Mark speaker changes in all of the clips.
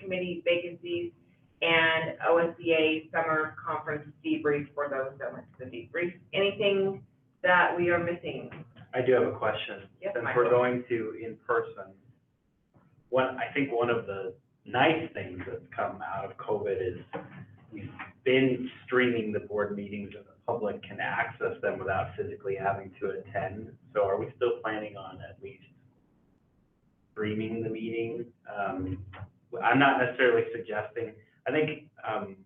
Speaker 1: committee vacancies and OSBA summer conference debrief for those that went to the debrief. Anything that we are missing?
Speaker 2: I do have a question.
Speaker 1: Yes,
Speaker 2: Since
Speaker 1: Michael?
Speaker 2: we're going to in person, one, I think one of the nice things that's come out of COVID is we've been streaming the board meetings and the public can access them without physically having to attend. So are we still planning on at least streaming the meeting? Um, I'm not necessarily suggesting, I think, um,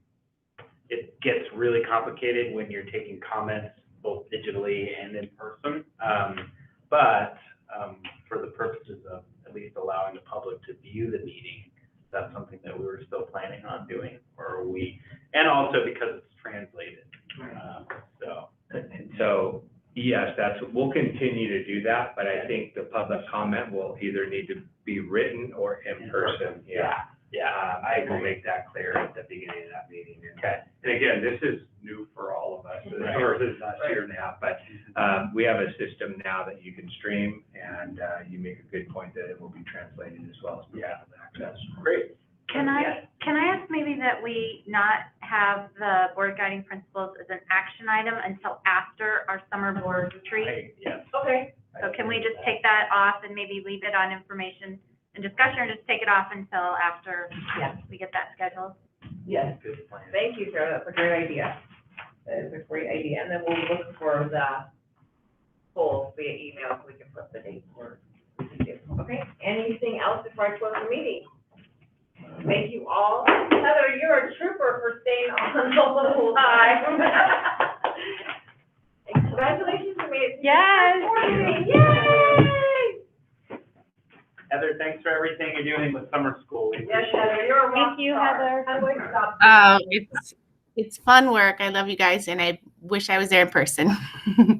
Speaker 2: it gets really complicated when you're taking comments both digitally and in person. Um, but, um, for the purposes of at least allowing the public to view the meeting, that's something that we were still planning on doing, or we, and also because it's translated, um, so.
Speaker 3: And so, yes, that's, we'll continue to do that, but I think the public comment will either need to be written or in person, yeah.
Speaker 2: Yeah,
Speaker 3: Um, I will make that clear at the beginning of that meeting. And-
Speaker 2: okay.
Speaker 3: And again, this is new for all of us,
Speaker 2: Right.
Speaker 3: or this is last year now, but, um, we have a system now that you can stream, and, uh, you make a good point that it will be translated as well as.
Speaker 2: Yeah.
Speaker 3: Access. Great.
Speaker 4: Can
Speaker 2: Yes.
Speaker 4: I, can I ask maybe that we not have the board guiding principles as an action item until after our summer board retreat?
Speaker 2: I- Yes.
Speaker 1: Okay,
Speaker 4: So can we just take that off and maybe leave it on information and discussion, or just take it off until after
Speaker 1: Yeah.
Speaker 4: we get that scheduled?
Speaker 1: yes.
Speaker 2: Good plan.
Speaker 1: Thank you, Sarah, that's a great idea. That is a great idea, and then we'll look for the poll via email, so we can put the date where we can do. Okay, anything else before I close the meeting? Thank you all. Heather, you're a trooper for staying on the whole time. And Congratulations, you made it. to the
Speaker 4: Yes.
Speaker 1: board meeting. Yay!
Speaker 2: Heather, thanks for everything you're doing with summer school. We
Speaker 1: Yes,
Speaker 2: appreciate it.
Speaker 1: Heather, you're a rock
Speaker 4: Thank you,
Speaker 1: star.
Speaker 4: Heather.
Speaker 1: How do I stop?
Speaker 5: Oh, it's it's fun work. I love you guys, and I wish I was there in person.